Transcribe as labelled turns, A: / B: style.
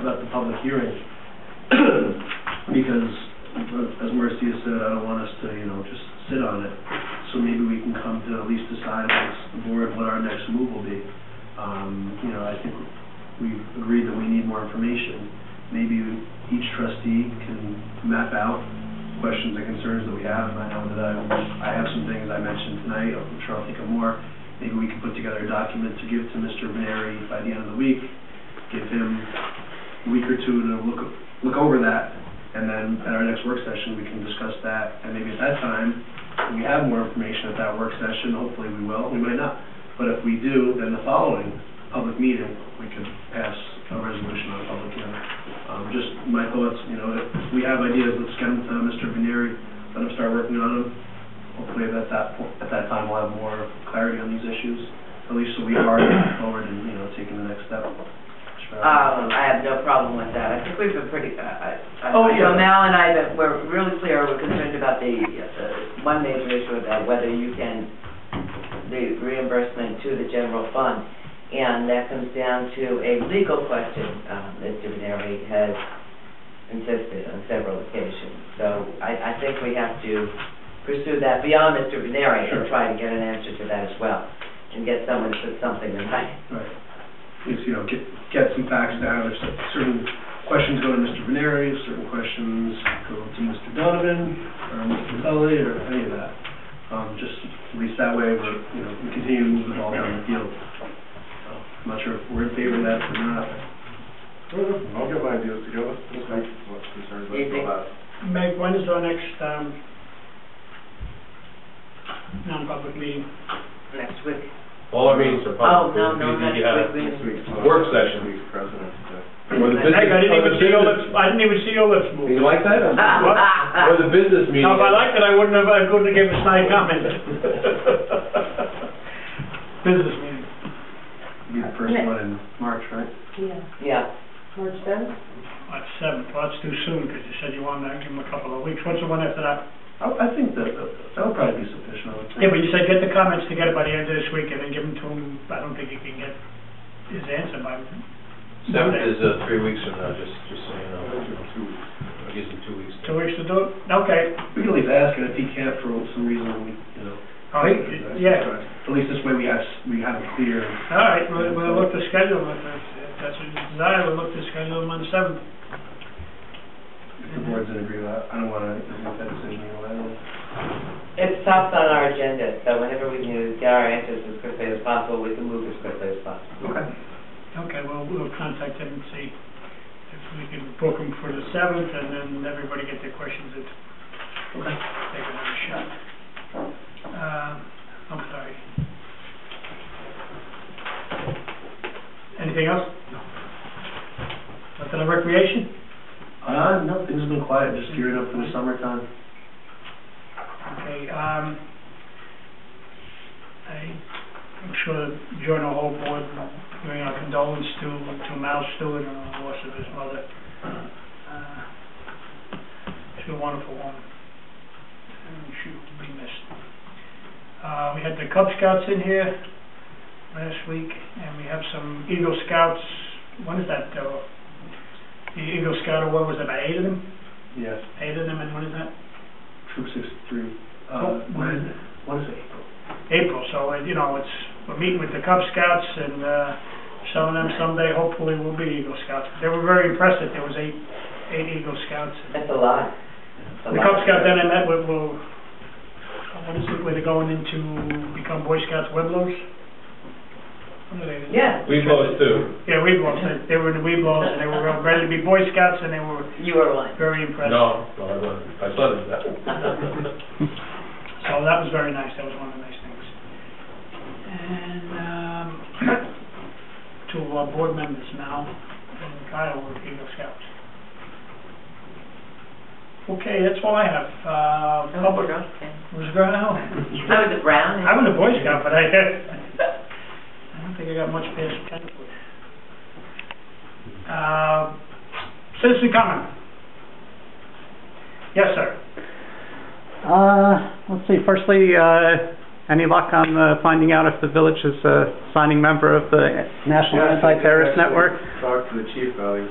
A: about the public hearing. Because, uh, as Marcia said, I don't want us to, you know, just sit on it. So maybe we can come to at least decide as the board what our next move will be. Um, you know, I think we've agreed that we need more information. Maybe each trustee can map out questions and concerns that we have. I know that I, I have some things I mentioned tonight, I'm sure I'll think of more. Maybe we can put together a document to give to Mr. Maneri by the end of the week, give him a week or two to look, look over that, and then at our next work session, we can discuss that, and maybe at that time, when we have more information at that work session, hopefully we will, we might not. But if we do, then the following public meeting, we could pass a resolution on public hearing. Um, just my thoughts, you know, if we have ideas, let's get them to Mr. Veneri, let him start working on them. Hopefully at that, po- at that time, we'll have more clarity on these issues, at least so we are moving forward and, you know, taking the next step.
B: Um, I have no problem with that. I think we've been pretty, uh, I, I-
A: Oh, yeah.
B: so now and I, that we're really clear, we're concerned about the, the one major issue of that, whether you can, the reimbursement to the general fund. And that comes down to a legal question, um, that Divinary has insisted on several occasions. So I, I think we have to pursue that beyond Mr. Veneri
A: Sure.
B: and try to get an answer to that as well. And get someone to put something in writing.
A: Right. Is, you know, get, get some facts down, if certain questions go to Mr. Veneri, certain questions go to Mr. Donovan, or Mr. Tully, or any of that. Um, just, at least that way, we're, you know, we continue to move the ball down the field. So, I'm not sure if we're in favor of that or not.
C: I'll get my ideas together, just make what's concerned, but
B: Easy.
C: go back.
D: Meg, when is our next, um, non-public meeting?
B: Next week.
E: All our meetings are
B: Oh,
E: public.
B: no, no,
E: You- you- you
B: next
E: have-
B: week.
C: Next week's, uh,
E: Work session.
C: Next week's president, uh,
E: Or
B: Meg,
E: the business,
D: Meg, I didn't
E: or the
D: even see your lips,
E: business-
D: I didn't even see your lips move.
E: You like that?
D: What?
E: Or the business meeting.
D: Now, if I liked it, I wouldn't have, I couldn't have given a snide comment. Business meeting.
A: Be the first one in March, right?
F: Yeah,
B: Yeah,
F: March seventh?
D: March seventh, well, that's too soon, because you said you wanted to give them a couple of weeks. What's the one after that?
A: I, I think that, that'll probably be sufficient, I would think.
D: Yeah, but you said get the comments together by the end of this week, and then give them to him, I don't think he can get his answer by,
E: Seventh is, uh, three weeks from now, just, just so you know.
C: two weeks.
E: It Gives them two weeks.
D: two weeks to do it? Okay.
A: We can at least ask, and if he can't for some reason, we, you know,
D: All right. Oh, Yeah,
A: at least this way we have, s- we have a clear,
D: all right, we'll, we'll look to schedule them, if that's- if that's what you desire, we'll look to schedule them on the seventh.
A: if the board's in agreement, I don't wanna make that decision, you know, I don't.
B: it's tops on our agenda, so whenever we can get our answers as quickly as possible, we can move as quickly as possible.
A: Okay.
D: Okay, well, we'll contact him and see if we can book him for the seventh, and then everybody get their questions and
A: Okay.
D: take another shot. Um, I'm sorry. Anything else? No. Nothing on recreation?
A: Uh, no, things have been quiet, just gearing up for the summertime.
D: Okay, um, I- I'm sure during the whole board, bring our condolence to, to Mal Stewart on the loss of his mother. Uh, She's a wonderful woman. And she will be missed. Uh, we had the Cub Scouts in here last week, and we have some Eagle Scouts, when is that, uh, the Eagle Scout award, was about eight of them?
A: Yes,
D: Eight of them, and when is that?
A: Troop sixty-three.
D: Oh,
A: Uh,
D: when is it?
A: What is it? April?
D: April, so, uh, you know, it's, we're meeting with the Cub Scouts, and uh, some of them someday hopefully will be Eagle Scouts. They were very impressed that there was eight, eight Eagle Scouts.
B: That's a lot. That's a
D: The
B: lot.
D: Cub Scout then I met with, will, what is it, where they're going into, become Boy Scouts Pueblos? What are they?
B: Yeah,
E: We both do.
D: Yeah, Weeblos, They- they were in the Weeblos, and they were ready to be Boy Scouts, and they were
B: you were one.
D: very impressed.
E: No, no, I wasn't. I saw that.
D: So Oh, that was very nice, that was one of the nice things. And, um, to our board members now, and Kyle with Eagle Scouts. Okay, that's all I have, uh,
B: Oh,
D: public,
B: we're okay.
D: was going on?
B: I was a brown.
D: I was a Boy Scout, but I, I don't think I got much past ten. Uh, citizen comment? Yes, sir.
G: Uh, let's see, firstly, uh, any luck on uh, finding out if the village is a signing member of the National
C: Yeah, I think
G: Anti-Terrorist
C: I actually
G: Network?
C: Talked to the chief, about it. He's